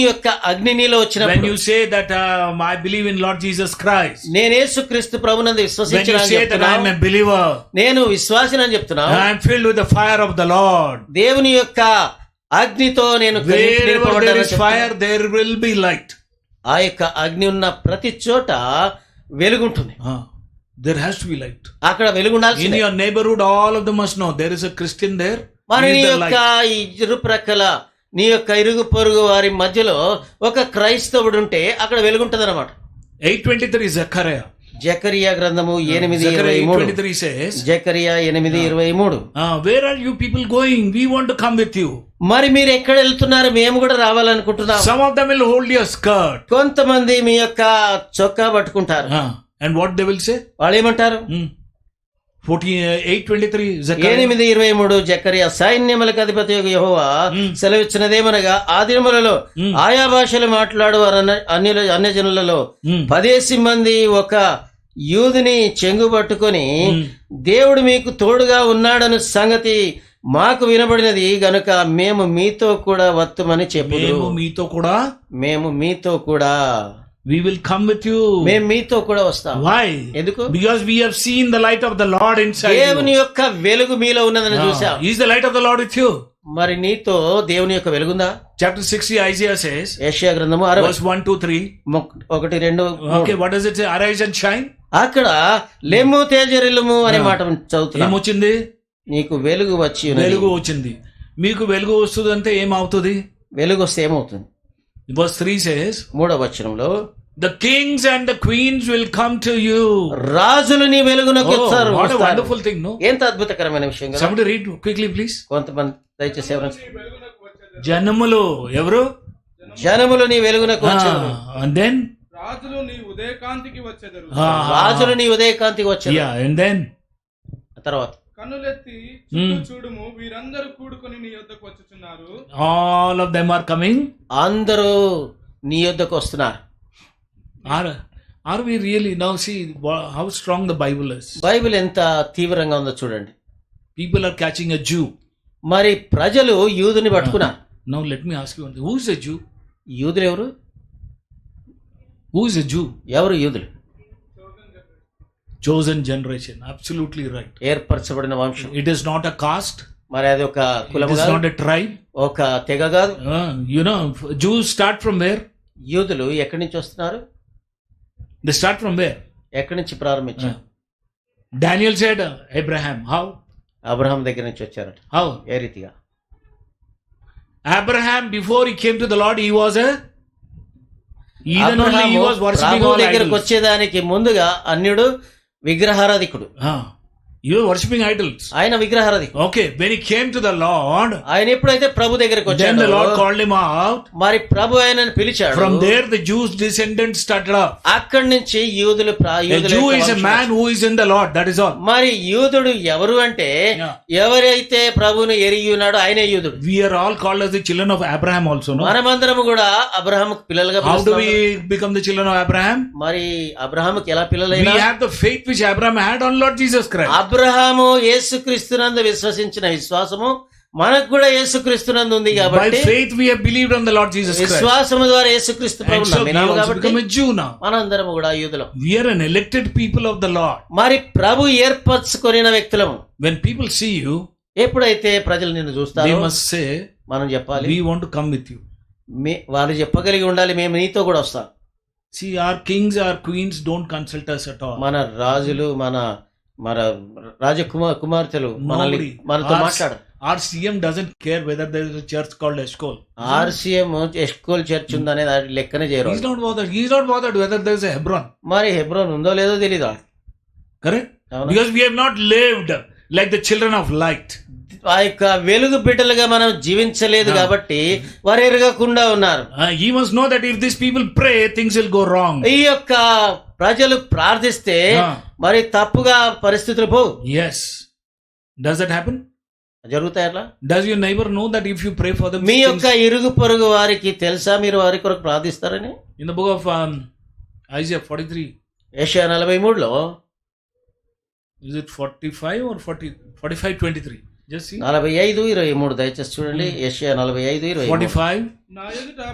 యొక్క అగ్ని నీలో When వచ్చినప్పుడు you say that um, I believe in Lord Jesus Christ, నేను యేసుక్రీస్తు ప్రభునందు when you say that I am విశ్వసించిన a believer, నేను విశ్వాసిన అని చెప్తున్నావు I am filled with the fire of the Lord. దేవుని యొక్క అగ్నితో నేను కలిపి Wherever నింపబడ్డాను there అని is చెప్తున్నావు. fire, there will be light. ఆ యొక్క అగ్ని ఉన్న ప్రతి చోట వెలుగుంటుంది Ah, there has to be light. అక్కడ వెలుగుండాల్సి In your neighborhood, all of them must know there is a Christian there. మరి He నీ is the యొక్క light. ఈ ఇరు ప్రక్కల నీ యొక్క ఇరుగు పొరుగు వారి మధ్యలో ఒక క్రైస్తవుడు ఉంటే అక్కడ వెలుగుంటది అనమాట 823 Zechariah. జకరియా గ్రంథము ఎనిమిది Zechariah ఇరవై మూడు 823 says, జకరియా ఎనిమిది ఇరవై మూడు ah, Where are you people going? We want to come with you. మరి మీరు ఎక్కడ వెళ్తున్నారు మేము కూడా రావాలనుకుంటున్నాం Some of them will hold your skirt. కొంతమంది మీ యొక్క చొక్కా పట్టుకుంటారు Ah, And what they will say? వాళ్ళు ఏమంటారు Hmm. 14, uh, 823 Zechariah. ఎనిమిది ఇరవై మూడు జకరియా సైన్యములకు అధిపతి యహోవా Mm. సెలవిచ్చినదేమనగా ఆ దినములలో మ్మ్. ఆయా భాషలు మాట్లాడువారు అన్య అన్యజనులలో Hmm. పదేసి మంది ఒక యూదుని చెంగు పట్టుకొని Hmm. దేవుడు మీకు తోడుగా ఉన్నాడన్న సంగతి మాకు వినబడినది గనుక మేము మీతో కూడా వత్తుమని చెప్పు మేము మీతో కూడా మేము మీతో కూడా we will come with you మేము మీతో కూడా వస్తాం వై ఎందుకు because we have seen the light of the Lord inside దేవుని యొక్క వెలుగు మీలో ఉన్నదని Ah. చూసాం is the light of the Lord with you మరి నీతో దేవుని యొక్క వెలుగుందా చాప్టర్ 60 ఐజియా సేస్ ఏషియా గ్రంథము అరవై వర్స్ 1 2 3 మొక్- ఒకటి రెండు మూడు. Okay what does it say arise and shine అక్కడ లెమ్ము తేజరిల్లుము అనే మాట చదువుతున్నాం ఏమొచ్చింది నీకు వెలుగు వచ్చి ఉన్నది. వెలుగు వచ్చింది మీకు వెలుగు వస్తుంది అంటే ఏమవుతుంది వెలుగు వస్తే ఏమవుతుంది వర్స్ 3 సేస్ మూడవ వచనంలో the kings and the queens will come to you రాజులు నీ వెలుగునకు Oh, వస్తారు వాట్ వస్తారు. వండర్ఫుల్ థింగ్ నో ఎంత అద్భుతకరమైన విషయం కదా సమ్డి రీడ్ క్విక్లీ ప్లీజ్ కొంతమంది దయచేసి ఎవరైనా జనములు ఎవరు జనములు నీ వెలుగునకు Ah, వచ్చారు అండ్ దెన్ రాజులు నీ ఉదయకాంతికి వచ్చెదరు ah, రాజులు నీ ఉదయకాంతికి వచ్చారు యా అండ్ దెన్ తర్వాత కన్నులెత్తి చుట్టూ చూడుము వీరందరూ కూడుకొని నీ యొద్దకు వచ్చుచున్నారు all of them are coming అందరూ నీ యొద్దకు వస్తున్నారు are are we really now see how strong the Bible is Bible ఎంత తీవ్రంగా ఉందో చూడండి people are catching a Jew మరి ప్రజలు యూదుని పట్టుకున్నారు now let me ask you who is a Jew యూదులు ఎవరు హూ ఇస్ అ జూ ఎవరు యూదులు చోజన్ జనరేషన్ అబ్సల్యూట్లీ రైట్ ఏర్పరచబడిన వంశం it is not a caste మరి అది ఒక ఇట్ కులము ఈస్ కాదు నాట్ అ ట్రైబ్ ఒక తెగ కాదు you know Jew start from where యూదులు ఎక్కడి నుంచి వస్తున్నారు ద స్టార్ట్ ఫ్రమ్ వేర్ ఎక్కడి నుంచి Ah. ప్రారంభించారు Daniel side Abraham how Abraham దగ్గర నుంచి వచ్చారట హౌ ఏ రీతిగా Abraham before he came to the Lord he was Abraham ప్రభువు దగ్గరకు వర్షిపింగ్ వచ్చేదానికి ముందుగా అన్యుడు విగ్రహారాధికుడు యు వర్షిపింగ్ ఐడల్స్ ఆయన విగ్రహారాధికుడు okay when he came to the Lord ఆయన ఎప్పుడైతే ప్రభు దగ్గరకు దెన్ ద వచ్చాడు లార్డ్ కాల్డ్ హిమ్ అవుట్ మరి ప్రభు ఆయనను పిలిచాడు from there the Jews descendant started up అక్కడి నుంచి యూదులు ప్రా- A యూదుల Jew యొక్క is a వంశం man who is in the Lord. That is all. మరి యూదుడు ఎవరు అంటే Yeah. ఎవరైతే ప్రభువును ఎరిగి ఉన్నాడో ఆయనే యూదుడు We are all called as the children of Abraham also. No? మనమందరము కూడా అబ్రహాముకు పిల్లలుగా How do పిలుస్తున్నాము. we become the children of Abraham? మరి అబ్రహాముకి ఎలా We పిల్లలైనా have the faith which Abraham had on Lord Jesus Christ. Abraham యేసుక్రీస్తునందు విశ్వసించిన విశ్వాసము మనకు కూడా యేసుక్రీస్తునందు ఉంది By కాబట్టి faith we have believed on the Lord Jesus Christ. విశ్వాసము ద్వారా యేసుక్రీస్తు And ప్రభువు so we నమ్మినాము also కాబట్టి become a Jew now. మనందరము కూడా యూదులం We are an elected people of the Lord. మరి ప్రభు ఏర్పరచుకొనిన వ్యక్తులము When people see you, ఎప్పుడైతే ప్రజలు నిన్ను they చూస్తారో must say, మనం చెప్పాలి We want to come with you. మే- వారు చెప్పగలిగి ఉండాలి మేము నీతో కూడా వస్తాం See, our kings, our queens don't consult us at all. మన రాజులు మన మన రాజకుమార్ కుమార్తెలు మనల్ని Nobody. మనతో Our- మాట్లాడు Our CM doesn't care whether there is a church called Eshkol. RCM Eshkol church ఉందనేది అది లెక్కనే చేయరు He's not bothered. He's not bothered whether there is a Hebron. మరి హెబ్రోన్ ఉందో లేదో తెలీదు Correct? అవునా? Because we have not lived like the children of light. ఆ యొక్క వెలుగు బిడ్డలుగా మనం జీవించలేదు కాబట్టి వారు ఎరగకుండా ఉన్నారు Uh, he must know that if these people pray, things will go wrong. ఈ యొక్క ప్రజలు ప్రార్థిస్తే Ah. మరి తప్పుగా పరిస్థితులు పోవు Yes. Does that happen? జరుగుతాయి అట్లా Does your neighbor know that if you pray for them, me things- యొక్క ఇరుగు పొరుగు వారికి తెలుసా మీరు వారి కొరకు ప్రార్థిస్తారని in the book of um, Isaiah 43, Isaiah నలభై మూడులో is it 45 or 40, 45 23? Just see. నలభై ఐదు ఇరవై మూడు దయచేసి చూడండి ఏషియా నలభై ఐదు ఇరవై మూడు. 45. నా ఎదుట